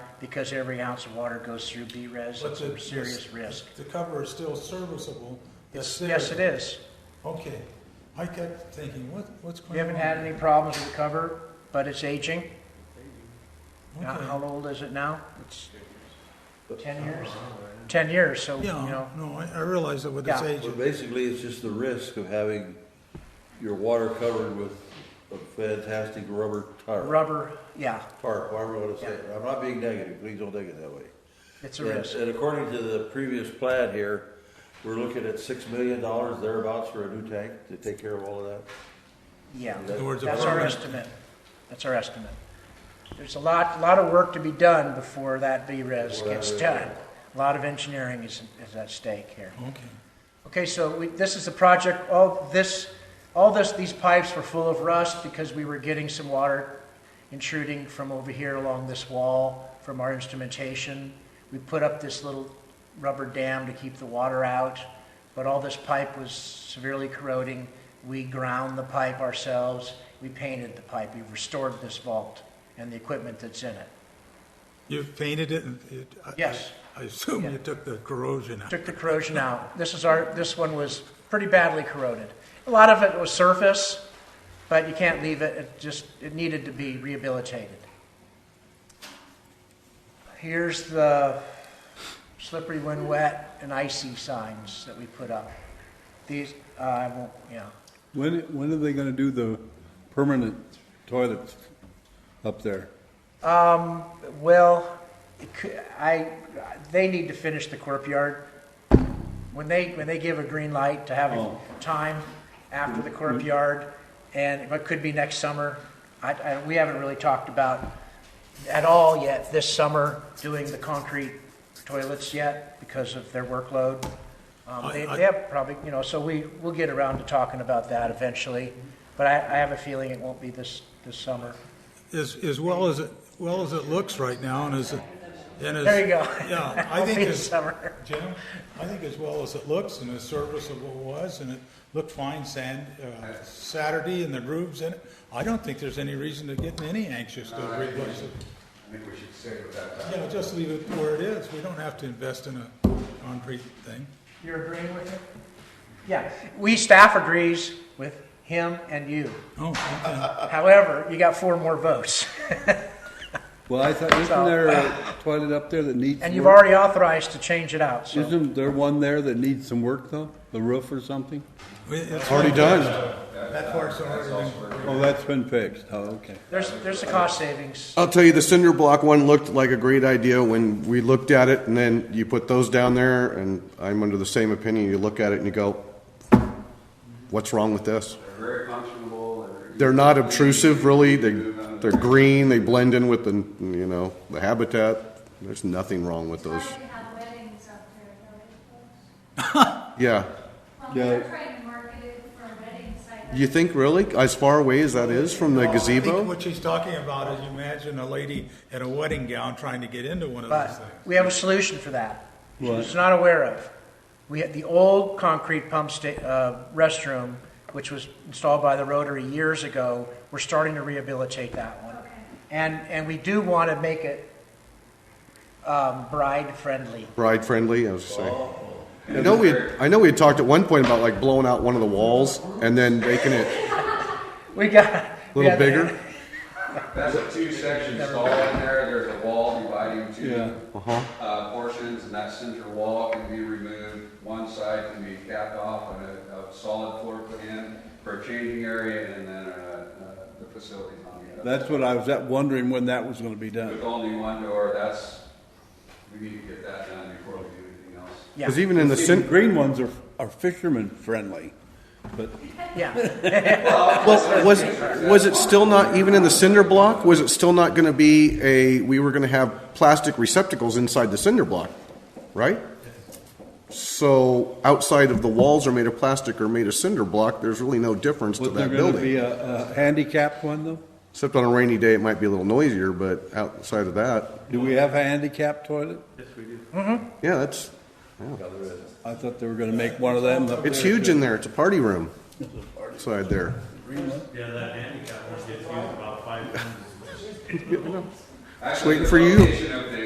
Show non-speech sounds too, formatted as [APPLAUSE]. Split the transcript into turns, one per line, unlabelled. because every ounce of water goes through B-res,
But
it's
the-
a serious risk.
The cover is still serviceable. That's there.
Yes, it is.
Okay. I kept thinking, what, what's going on?
We haven't had any problems with cover, but it's aging. Now,
Okay.
How old is it now? It's 10 years? 10 years, so, you
Oh, Yeah,
know,
no, I, I realize that with this
Yeah.
age,
Well, basically, it's just the risk of having your water covered with a fantastic rubber tarp.
rubber, yeah,
Tarp, however you want to say it. I'm not being negative, please don't take it that way.
it's a
And-
risk.
And according to the previous plan here, we're looking at six million dollars thereabouts for a new tank to take care of all of that.
Yeah,
In
other words, a
that's our
permanent-
estimate. That's our estimate. There's a lot, lot of work to be done before that B-res
Before that
gets
is-
done. A lot of engineering is, is at stake here.
okay.
Okay, so we, this is the project, all this, all this, these pipes were full of rust because we were getting some water intruding from over here along this wall from our instrumentation. We put up this little rubber dam to keep the water out, but all this pipe was severely corroding. We ground the pipe ourselves, we painted the pipe, we restored this vault and the equipment that's in it.
You've painted it and it. I-
Yes.
I assume
Yeah.
you took the corrosion out.
took the corrosion out. This is our, this one was pretty badly corroded. A lot of it was surface, but you can't leave it, it just, it needed to be rehabilitated. Here's the slippery when wet and icy signs that we put up. These, uh, I won't, yeah.
When, when are they gonna do the permanent toilets up there?
Well, it cou- I, they need to finish the courtyard. When they, when they give a green light to have a
Oh.
time after the
Mm-hmm.
courtyard, and it could be next summer, I, I, we haven't really talked about at all yet this summer doing the concrete toilets yet because of their workload. Um, they,
I- I-
they have probably, you know, so we, we'll get around to talking about that eventually, but I, I have a feeling it won't be this, this summer.
As, as well as, it well as it looks right now and as, it- and as.
There you go. [LAUGHS]
Yeah, I
Won't
think
be this
as,
summer.
Jim, I think as well as it looks and as serviceable it was, and it looked fine sand, uh, Saturday and the grooves in it, I don't think there's any reason to get any anxious
Uh,
to replace it.
I think we should stick with that.
You know, just leave it where it is. We don't have to invest in a concrete thing.
You're agreeing with it? Yeah, we staff agrees with him and you.
Oh, okay.
However, you got four more votes,
Well, I thought, isn't there a toilet up there that needs?
and you've
work?
already authorized to change it out, so.
Isn't there one there that needs some work though? The roof or something?
We- it's-
Already done.
That part's already been.
Oh, that's been fixed. Oh, okay.
There's, there's the cost savings.
I'll tell you, the cinder block one looked like a great idea when we looked at it, and then you put those down there, and I'm under the same opinion. You look at it and you go, what's wrong with this?
They're very functional, they're.
They're not obtrusive, really. They, they're green, they blend in with the, you know, the habitat. There's nothing wrong with those.
Trying to have weddings up there, though.
Yeah.
Well, they're trying to market it for a wedding site.
You think, really, as far away as that is from the
Well, I think
gazebo?
What she's talking about is you imagine a lady in a wedding gown trying to get into one of those
But
things.
we have a solution for that.
What?
She's not aware of. We had the old concrete pump sta, uh, restroom, which was installed by the Rotary years ago. We're starting to rehabilitate that one. And, and we do want to make it, um, bride-friendly.
Bride friendly, I was just saying. I know we, had- I know we had talked at one point about like blowing out one of the walls and then making it
We got.
a
we
little
had the-
bigger.
That's a two-section stall in there, there's a wall dividing two, uh, portions, and that center wall can be removed. One side can be capped off and a, a solid floor put in for a changing area, and then, uh, uh, the facilities on the other.
That's what I was at- wondering when that was gonna be
With
done.
only one door, that's, we need to get that done before we do anything else.
[LAUGHS] Yeah,
Because even in the
The
cin-
green ones are, are fisherman friendly, but
yeah.
Well, was, was it still not, even in the cinder block, was it still not going to be a, we were going to have plastic receptacles inside the cinder block, right? So outside of the walls are made of plastic or made of cinder block, there's really no difference to
was there
that
gonna be
building.
a, a handicapped one though?
Except on a rainy day, it might be a little noisier, but outside of that,
Do we have a handicapped toilet?
yeah, that's,
I thought they were gonna make one of them up
it's
there.
huge in there. It's a party room inside there.
Yeah, that handicap one gets used about five times as much.
Just waiting for you.
Actually, the location of the